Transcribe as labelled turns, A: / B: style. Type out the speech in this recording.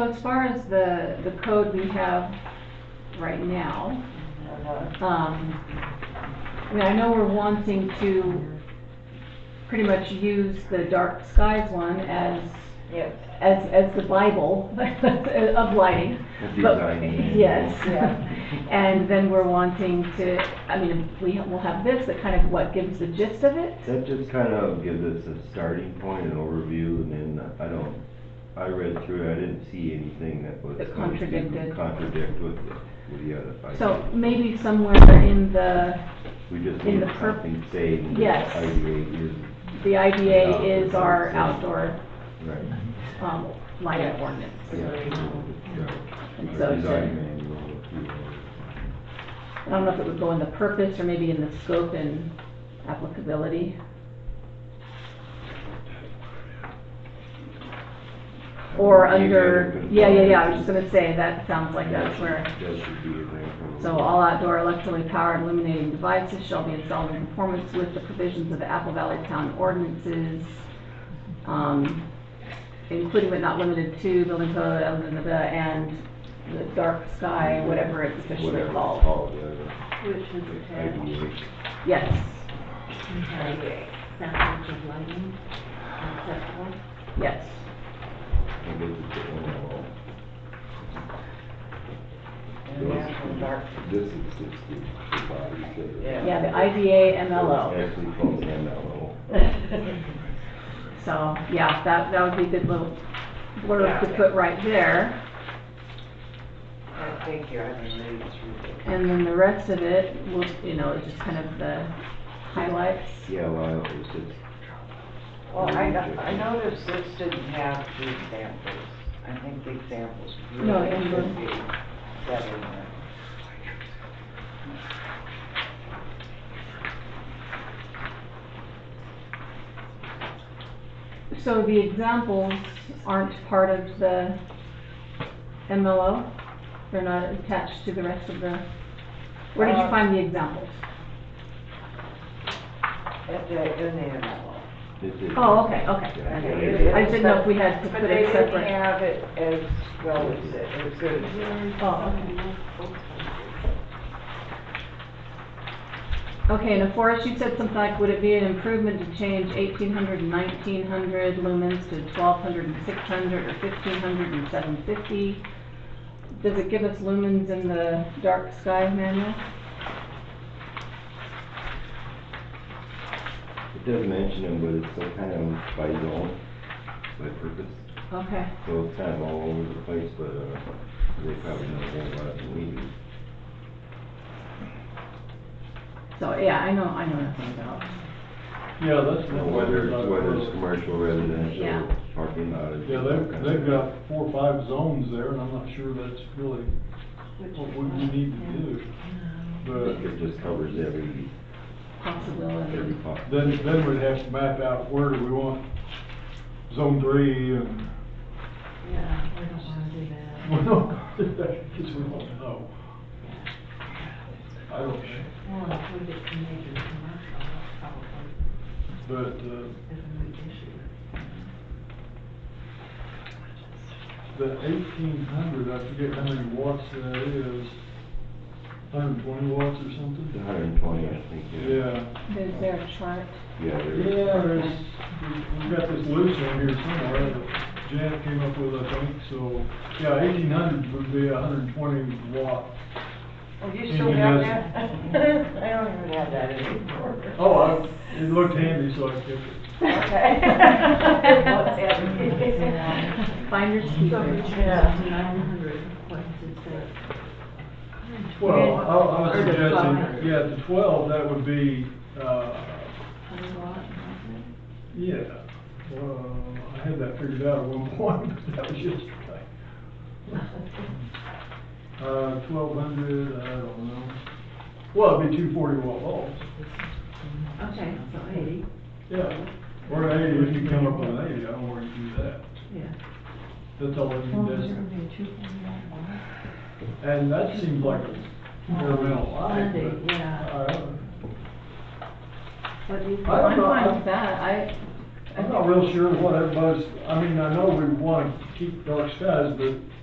A: So as far as the, the code we have right now, um, I mean, I know we're wanting to pretty much use the dark skies one as,
B: Yes,
A: as, as the bible of lighting. But-
C: Design.
A: Yes.
B: Yeah.
A: And then we're wanting to, I mean, we, we'll have this, that kind of what gives the gist of it?
C: That just kind of gives us a starting point, an overview, and then I don't, I read through it, I didn't see anything that was.
A: That contradicted.
C: Contradict with the, with the other. five.
A: So maybe somewhere in the,
C: We just
A: in
C: need
A: the per-
C: something saved. and
A: Yes.
C: IDA is-
A: the IDA is our outdoor,
C: right,
A: um, lighting ordinance.
C: yeah.
A: And
C: Our
A: so it's a-
C: design manual, if you will.
A: I don't know if it would go in the purpose or maybe in the scope and applicability. Or
C: Maybe
A: under,
C: other
A: yeah, yeah, yeah, I was
C: components.
A: just gonna say, that sounds like that's where.
C: That should be in there.
A: So all outdoor electrically powered illuminating devices shall be installed in conformance with the provisions of the Apple Valley Town ordinances, um, including but not limited to building code, blah, blah, blah, blah, and the dark sky, whatever it's officially
C: Whatever it's
A: called.
C: called, yeah, yeah.
B: which is attached.
C: IDA.
A: Yes,
B: Samples of lighting, et cetera.
A: yes.
C: I guess it's the overall.
B: And that's the dark.
C: This is just the, the body shape.
B: Yeah.
A: Yeah, the IDA MLO.
C: It's Actually called MLO.
A: So, yeah, that, that would be a good little blurb to put right there.
B: I think you're having to read through it.
A: And then the rest of it, will you know, is just kind of the highlights.
C: Yeah, well, it's just,
B: Well, I, no- I noticed this didn't have the examples. I think the examples
A: No,
B: really
A: it
B: should
A: didn't.
B: be set in there.
A: So the examples aren't part of the MLO? They're not attached to the rest of the, where did you
B: Uh,
A: find the examples?
B: It's a- in the MLA.
C: this is.
A: Oh, okay, okay.
C: Yeah,
A: okay.
C: it is.
A: I didn't know if we had to
B: But
A: put
B: they
A: it
B: didn't
A: separate.
B: have it as well as, it- as good as this.
A: Oh, okay. Okay, now Forrest, you said something like, would it be an improvement to change 1800 and 1900 lumens to 1200 and 600 or fifteen hundred and seven fifty? Does it give us lumens in the dark sky manual?
C: It does mention them, but it's still kind of by zone, by purpose,
A: Okay,
C: so it's kind of all over the place, but, uh, they probably know more about it than we do.
A: so, yeah, I know, I know nothing about.
D: Yeah, that's.
C: You know, Whether, it's- whether it's commercial, residential,
A: Yeah.
C: parking lot. it's
D: Yeah,
C: all
D: they've,
C: kinds
D: they've
C: of-
D: got four or five zones there, and I'm not sure that's really what we need to do. But
C: It just covers every, every
A: possibility.
C: part.
D: then, then we'd have to map out where do we want zone three and,
E: Yeah, I don't wanna do that.
D: well, no, because we don't know. I don't,
E: Well, if we get to major commercial, that's probably
D: but, uh,
E: isn't an issue.
D: the eighteen hundred, I forget how many watts that is, hundred and twenty watts or
C: It's
D: something?
C: hundred and twenty, I think, yeah.
D: Yeah.
A: Is there a chart?
C: Yeah, there's.
D: Yeah, there's, we've got this loose one here somewhere that Janet came up with, I think, so, yeah, eighteen hundred would be hundred and twenty watt.
B: Well, you
D: Even
B: still got
D: as-
B: that? I don't even have that anymore.
D: Oh, I, it looked handy, so I kept it.
B: Okay.
A: Finders keepers.
B: Yeah.
E: Nine hundred, what does it say?
D: Well, I, I was
A: Or the
D: suggesting,
A: twelve.
D: yeah, the twelve, that would be, uh,
E: Twenty watt, nothing?
D: yeah. Uh, I had that figured out at one point, but that was yesterday. Uh, twelve hundred, I don't know. Well, it'd be two forty watt bulbs.
E: Okay, so eighty,
D: Yeah, or eighty, if you come up with an eighty, I don't worry, do that,
E: yeah.
D: that's all I
E: Well,
D: can
E: there
D: do.
E: would be a two forty watt one.
D: And that seems like a fair amount of light,
E: Plenty,
D: but. uh,
E: yeah.
D: I-
A: What do you think?
D: I don't
A: I'm
D: know.
A: fine with that, I,
D: I'm not real sure what everybody's, I mean, I know we want to keep dark skies, but